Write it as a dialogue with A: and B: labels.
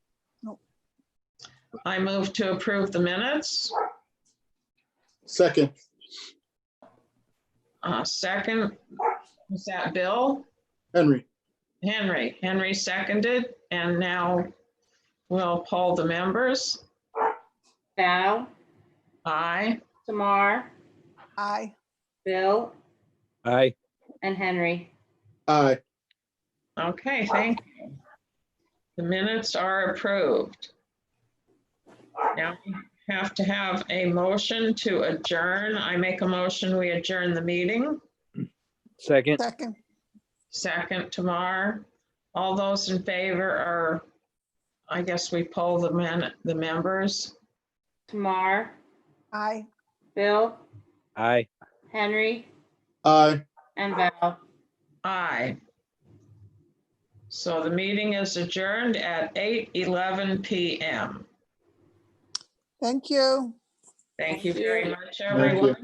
A: I move to approve the minutes.
B: Second,
A: Uh, Second, is that Bill?
B: Henry.
A: Henry, Henry seconded, and now we'll poll the members.
C: Val,
A: Aye.
C: Tamar,
D: Aye.
C: Bill,
E: Aye.
C: and Henry.
B: Aye.
A: Okay, thank you. The minutes are approved. Now we have to have a motion to adjourn. I make a motion, we adjourn the meeting.
E: Second.
D: Second.
A: Second, Tamar. All those in favor are, I guess we poll the men, the members.
C: Tamar,
D: Aye.
C: Bill,
E: Aye.
C: Henry,
B: Aye.
C: and Val.
A: Aye. So the meeting is adjourned at 8:11 PM.
D: Thank you.
A: Thank you
C: Thank you.
A: very much,
B: you.
A: everyone.